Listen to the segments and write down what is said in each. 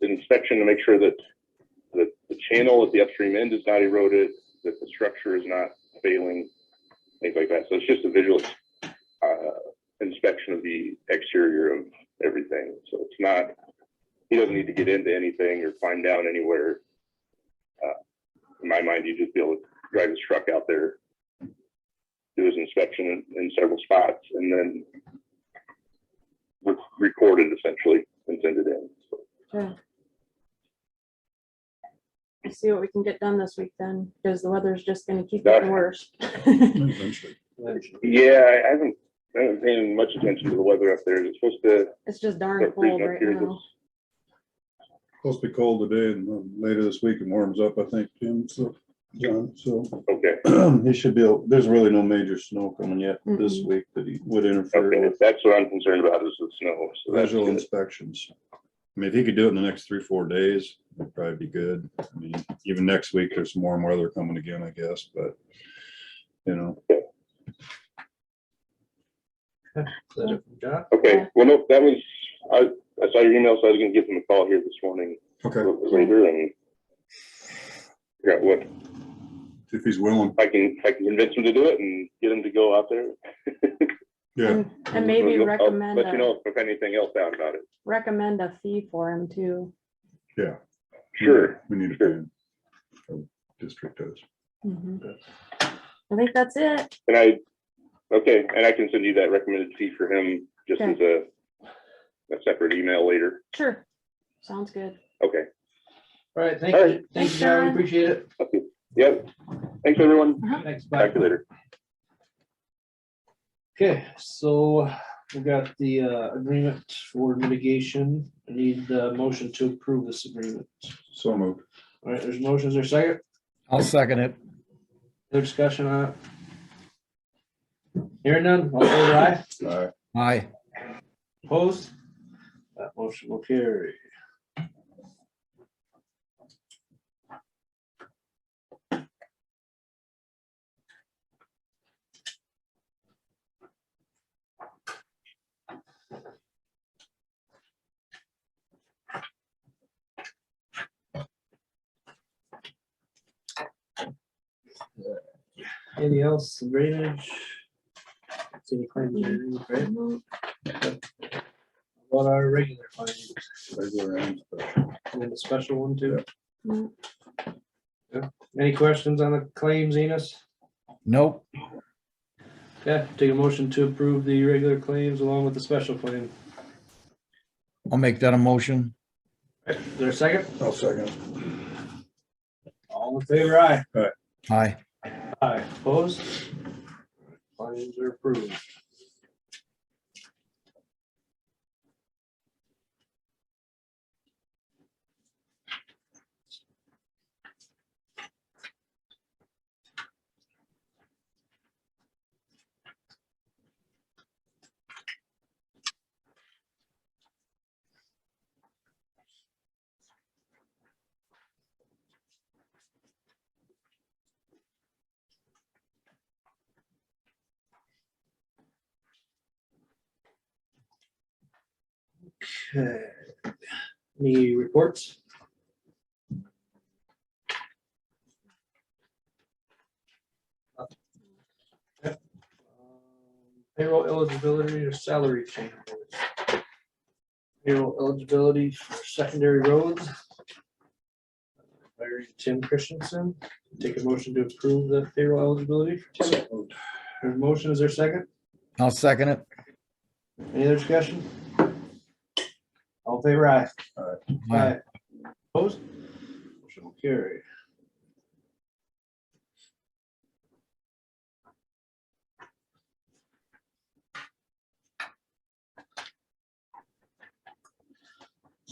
inspection to make sure that, that the channel at the upstream end is not eroded, that the structure is not failing, things like that. So it's just a visual, uh, inspection of the exterior of everything. So it's not, he doesn't need to get into anything or climb down anywhere. Uh, In my mind, you just be able to drive his truck out there, do his inspection in, in several spots and then re- record it essentially and send it in. So We'll See what we can get done this week then, because the weather's just gonna keep Gotcha. getting worse. Eventually. Yeah, I I haven't, I haven't paying much attention to the weather up there. It's supposed to It's just darn start cold freezing up right here. now. this- Supposed to be cold today and um, later this week it warms up, I think, Jim, so, John, so. Okay, He should be, able- there's really no major snow coming yet this Mm-mm. week that he would interfere okay, with that's what I'm concerned about is the snow. So that's visual good. inspections. I mean, if he could do it in the next three, four days, that'd probably be good. I mean, even next week, there's some warm weather coming again, I guess, but, you know, Is it from John? Okay, well, no, that was, I, I saw your email, so I was gonna give them a call here this morning, a okay, little bit later and figure out what, if he's willing, I can, I can convince them to do it and get them to go out there. yeah. And- And maybe I'll recommend, Let you a know if anything else out about it. recommend a fee for him too. Hmm. Sure, We need a sure. plan. So, District does. Mhm. I think that's it. and I, okay, and I can send you that recommended fee for him just as a, a separate email later. Sure. Sounds good. Okay, All right, thank All you. right. Thank Thanks, you, John. John. Appreciate it. yep. Thanks, everyone. Thanks, bye. Talk to you later. Okay, so we got the uh, agreement for mitigation. I need the motion to approve this agreement. So moved. All right, there's motions, there's second, I'll second it. there's discussion on it. Hearing none, all in favor aye, Aye. Aye. opposed? That motion will carry. Anything else, drainage? Any claims, right? What are regular findings? Regular and special. And then the special one too. Mm. Any questions on the claims, Enos? Nope. Okay, take a motion to approve the regular claims along with the special claim. I'll make that a motion. Is there a second? I'll second. All in favor, aye. Aye. Aye. Opposed? Claims are approved. Okay. Uh, Any reports? Uh, Payroll eligibility or salary change. Payroll eligibility for secondary roads. Hiring Tim Christensen, take a motion to approve the payroll eligibility. for Tim. There's a motion, is there a second? I'll second it. Any other discussion? All in favor aye. Aye. Opposed? Motion will carry.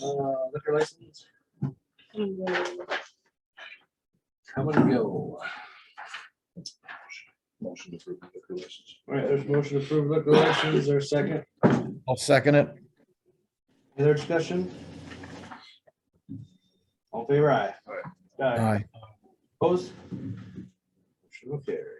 Uh, liquor license, come and go. Motion to approve the liquor license. All right, there's motion to approve liquor license, is there a second? I'll second it. Any other discussion? All in favor aye. Aye. Aye. Opposed? Motion will carry.